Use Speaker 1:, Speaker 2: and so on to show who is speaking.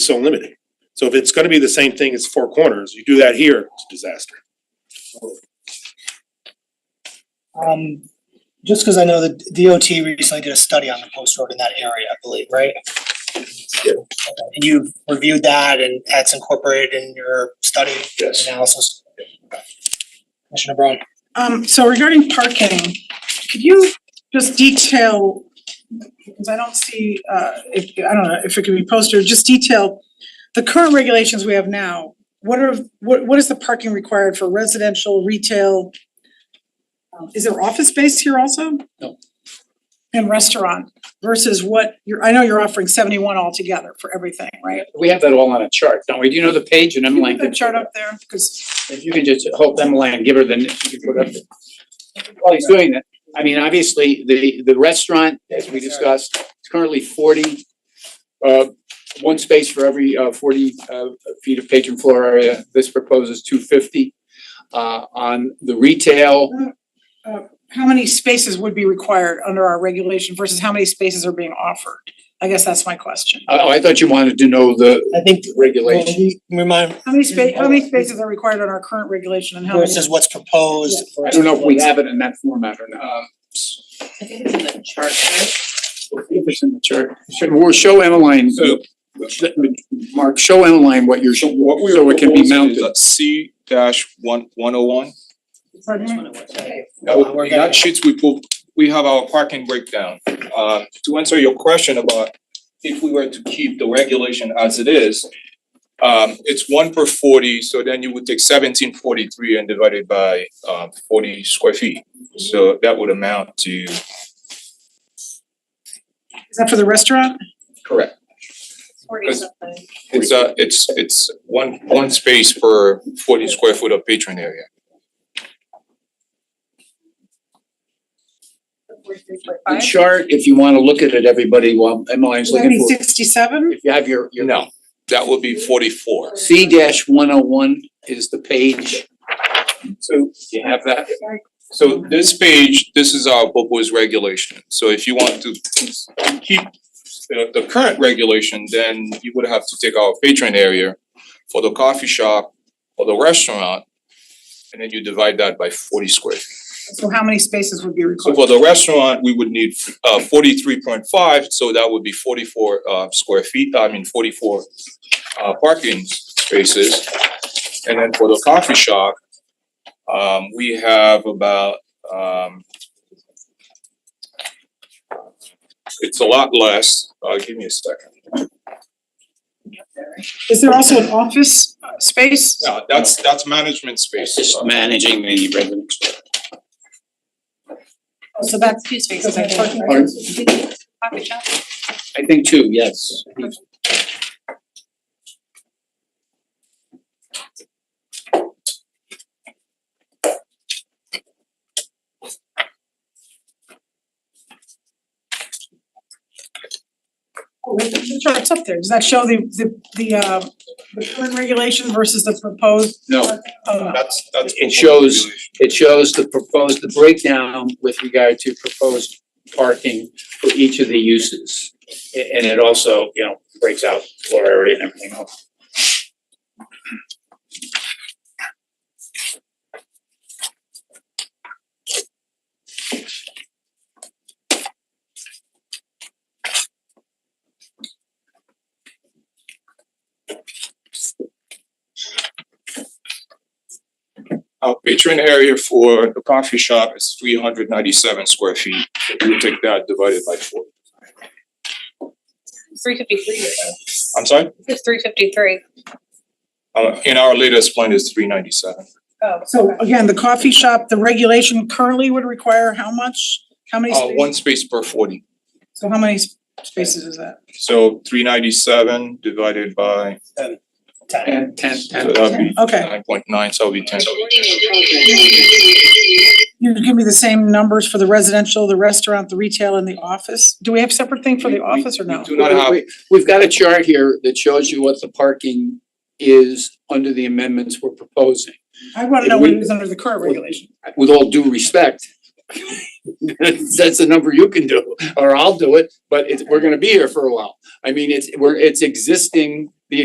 Speaker 1: so limiting. So if it's gonna be the same thing as Four Corners, you do that here, it's a disaster.
Speaker 2: Um, just because I know that DOT recently did a study on the post road in that area, I believe, right?
Speaker 1: Yeah.
Speaker 2: And you've reviewed that and that's incorporated in your study
Speaker 1: Yes.
Speaker 2: analysis? Commissioner Braun?
Speaker 3: Um, so regarding parking, could you just detail, because I don't see, uh, if, I don't know, if it could be posted, just detail the current regulations we have now, what are, what, what is the parking required for residential, retail? Um, Is there office space here also?
Speaker 2: No.
Speaker 3: And restaurant versus what, you're, I know you're offering seventy-one altogether for everything, right?
Speaker 4: We have that all on a chart, don't we? Do you know the page and
Speaker 3: Can
Speaker 4: M
Speaker 3: you
Speaker 4: line?
Speaker 3: put a chart up there, because,
Speaker 4: If you can just hold M line and give her the, you can put up. the- While he's doing that, I mean, obviously, the, the restaurant, as we discussed, is currently forty, uh, one space for every, uh, forty, uh, feet of patron floor area. This proposes two fifty. Uh, on the retail,
Speaker 3: how many spaces would be required under our regulation versus how many spaces are being offered? I guess that's my question.
Speaker 4: oh, I thought you wanted to know the
Speaker 2: I think, well,
Speaker 4: regulation.
Speaker 2: we remind,
Speaker 3: How many spa- how many spaces are required on our current regulation and how many?
Speaker 2: versus what's proposed.
Speaker 4: I don't know if we
Speaker 2: versus
Speaker 4: have it in that format or not.
Speaker 5: I think it's in the chart, right?
Speaker 4: If it's in the chart, should, we'll show Emmeline,
Speaker 6: So-
Speaker 4: Mark, show Emmeline what you're, so
Speaker 6: What we are
Speaker 4: it can be
Speaker 6: proposing
Speaker 4: mounted.
Speaker 6: is C dash one, one oh one.
Speaker 3: Pardon
Speaker 5: That's
Speaker 3: me?
Speaker 5: what it was, Mm-hmm. okay.
Speaker 2: Oh, we're gonna-
Speaker 6: That sheets we pull, we have our parking breakdown. Uh, to answer your question about if we were to keep the regulation as it is, um, it's one per forty, so then you would take seventeen forty-three and divide it by, uh, forty square feet. So that would amount to.
Speaker 3: Is that for the restaurant?
Speaker 6: Correct.
Speaker 5: Forty
Speaker 6: Because-
Speaker 5: something.
Speaker 6: It's uh it's, it's one, one space per forty square foot of patron area.
Speaker 4: the chart, if you wanna look at it, everybody, while Emmeline's looking for, it.
Speaker 3: Sixty-seven?
Speaker 4: if you have your, your.
Speaker 6: No, that would be forty-four.
Speaker 4: C dash one oh one is the page. So you have that?
Speaker 6: So this page, this is our proposed regulation, so if you want to keep the the current regulation, then you would have to take our patron area for the coffee shop or the restaurant, and then you divide that by forty square feet.
Speaker 3: So how many spaces would be
Speaker 6: So
Speaker 3: required?
Speaker 6: for the restaurant, we would need uh forty-three point five, so that would be forty-four uh square feet, I mean forty-four uh parking spaces. And then for the coffee shop, um we have about um it's a lot less, uh give me a second.
Speaker 3: Is there also an office uh, space?
Speaker 6: No, that's that's management space.
Speaker 4: managing the residential.
Speaker 3: So that's,
Speaker 5: Excuse me,
Speaker 3: Because I think-
Speaker 5: sorry.
Speaker 4: Pardon?
Speaker 5: Coffee shop?
Speaker 4: I think two, yes.
Speaker 3: oh, wait, the chart's up there. Does that show the, the, the, uh, the current regulation versus the proposed?
Speaker 4: No,
Speaker 3: Oh, no.
Speaker 6: That's that's.
Speaker 4: It shows- it shows the proposed, the breakdown with regard to proposed parking for each of the uses. A- And it also, you know, breaks out floor area and everything else.
Speaker 6: Our patron area for the coffee shop is three hundred ninety-seven square feet, if you take that divided by four.
Speaker 5: Three fifty-three,
Speaker 6: I'm sorry,
Speaker 5: it's three fifty-three.
Speaker 6: uh, in our latest plan is three ninety-seven.
Speaker 5: Oh,
Speaker 3: So again, the coffee shop, the regulation currently would require how much? How many
Speaker 6: Uh, one
Speaker 3: spaces?
Speaker 6: space per forty,
Speaker 3: So how many s- spaces is that?
Speaker 6: so three ninety-seven divided by,
Speaker 2: ten.
Speaker 4: And ten, ten.
Speaker 6: so that'd be
Speaker 3: Okay.
Speaker 6: nine point nine, so it'll be ten.
Speaker 3: You give me the same numbers for the residential, the restaurant, the retail and the office? Do we have separate thing for the
Speaker 4: We- we-
Speaker 3: office or no?
Speaker 6: do not have-
Speaker 4: We- We've got a chart here that shows you what the parking is under the amendments we're proposing.
Speaker 3: I wanna
Speaker 4: if
Speaker 3: know what
Speaker 4: we-
Speaker 3: is under the current
Speaker 4: we-
Speaker 3: regulation.
Speaker 4: With all due respect, that's a number you can do, or I'll do it, but it's, we're gonna be here for a while. I mean, it's, we're, it's existing